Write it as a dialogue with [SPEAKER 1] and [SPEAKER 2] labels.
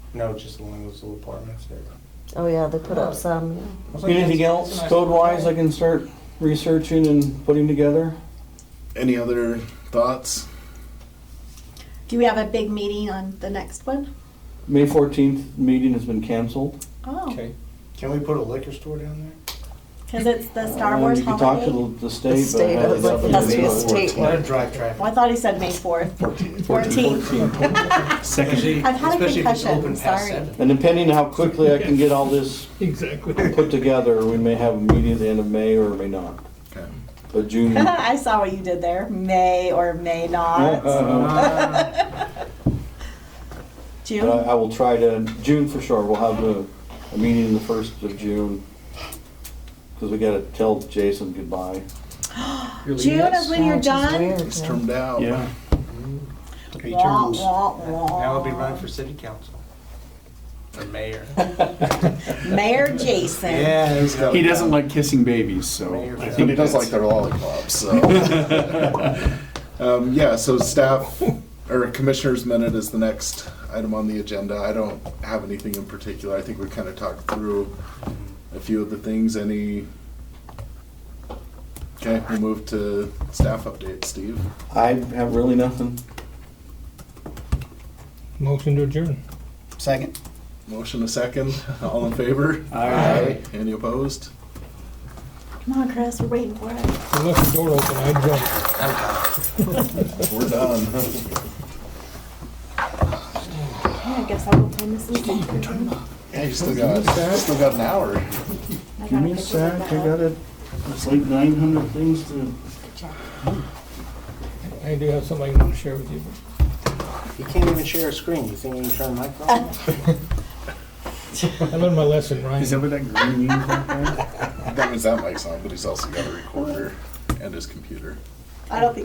[SPEAKER 1] No, just the one of those little apartments there.
[SPEAKER 2] Oh, yeah, they put up some. yeah.
[SPEAKER 1] I was like,
[SPEAKER 3] Anything
[SPEAKER 1] that's-
[SPEAKER 3] else
[SPEAKER 1] that's a nice
[SPEAKER 3] code-wise I
[SPEAKER 1] apartment.
[SPEAKER 3] can start researching and putting together?
[SPEAKER 4] Any other thoughts?
[SPEAKER 5] Do we have a big meeting on the next one?
[SPEAKER 3] May 14th meeting has been canceled.
[SPEAKER 5] Oh,
[SPEAKER 1] Can we put a liquor store down there?
[SPEAKER 5] because it's the Star
[SPEAKER 3] Um,
[SPEAKER 5] Wars
[SPEAKER 3] You can talk to
[SPEAKER 5] holiday.
[SPEAKER 3] the- the
[SPEAKER 2] The
[SPEAKER 3] state, but
[SPEAKER 2] state
[SPEAKER 3] it has
[SPEAKER 2] of the-
[SPEAKER 3] nothing
[SPEAKER 2] has
[SPEAKER 3] to
[SPEAKER 2] to
[SPEAKER 3] do
[SPEAKER 2] be a
[SPEAKER 3] with
[SPEAKER 2] state.
[SPEAKER 3] it.
[SPEAKER 1] Let it drive traffic.
[SPEAKER 5] Well, I thought he said May fourth. Fourteenth.
[SPEAKER 6] Second.
[SPEAKER 5] I've had a
[SPEAKER 1] Especially if it's
[SPEAKER 5] concussion,
[SPEAKER 1] open past
[SPEAKER 5] sorry.
[SPEAKER 1] seven.
[SPEAKER 3] And depending on how quickly I can get all this
[SPEAKER 6] Exactly.
[SPEAKER 3] put together, we may have a meeting at the end of May or may not.
[SPEAKER 4] Okay.
[SPEAKER 3] But June, uh,
[SPEAKER 5] I saw what you did there, may or may
[SPEAKER 3] uh,
[SPEAKER 5] not.
[SPEAKER 3] But
[SPEAKER 5] June,
[SPEAKER 3] I, I will try to, June for sure, we'll have a, a meeting in the first of June. Cause we gotta tell Jason goodbye.
[SPEAKER 5] June is when
[SPEAKER 2] Yeah,
[SPEAKER 5] you're
[SPEAKER 2] which is
[SPEAKER 5] done?
[SPEAKER 2] weird,
[SPEAKER 4] It's
[SPEAKER 2] yeah.
[SPEAKER 4] termed out.
[SPEAKER 1] He
[SPEAKER 5] Wah,
[SPEAKER 1] turns.
[SPEAKER 5] wah, wah.
[SPEAKER 1] Now I'll be running for city council. Or mayor.
[SPEAKER 5] Mayor Jason.
[SPEAKER 1] he's got
[SPEAKER 6] He
[SPEAKER 1] it down.
[SPEAKER 6] doesn't like kissing babies, so.
[SPEAKER 1] Mayor
[SPEAKER 6] I
[SPEAKER 1] Phil.
[SPEAKER 4] But
[SPEAKER 6] think
[SPEAKER 4] he does like
[SPEAKER 6] that's-
[SPEAKER 4] their lollipops, so. Um, yeah, so staff, or commissioners minute is the next item on the agenda. I don't have anything in particular. I think we kind of talked through a few of the things, any. Okay, we'll move to staff update, Steve.
[SPEAKER 3] I have really nothing.
[SPEAKER 7] Motion to adjourn.
[SPEAKER 1] Second.
[SPEAKER 4] Motion a second, all in favor?
[SPEAKER 6] Aye.
[SPEAKER 4] Any opposed?
[SPEAKER 5] Come on, Chris, we're waiting for it.
[SPEAKER 7] You left the door open, I'd jump.
[SPEAKER 4] We're done.
[SPEAKER 5] Yeah, I guess I will turn this in.
[SPEAKER 4] Yeah, you still got, still got an hour.
[SPEAKER 5] I
[SPEAKER 3] Give me a
[SPEAKER 5] gotta figure
[SPEAKER 3] sec,
[SPEAKER 5] that
[SPEAKER 3] I
[SPEAKER 5] out.
[SPEAKER 3] gotta, it's like nine hundred things to.
[SPEAKER 7] I do have something I want to share with you.
[SPEAKER 1] He can't even share a screen. You think he can turn a microphone? on?
[SPEAKER 7] I learned my lesson, Ryan.
[SPEAKER 6] Is that what that green means back there?
[SPEAKER 4] That means that mic's on, but he's also got a recorder and his computer.
[SPEAKER 5] I don't think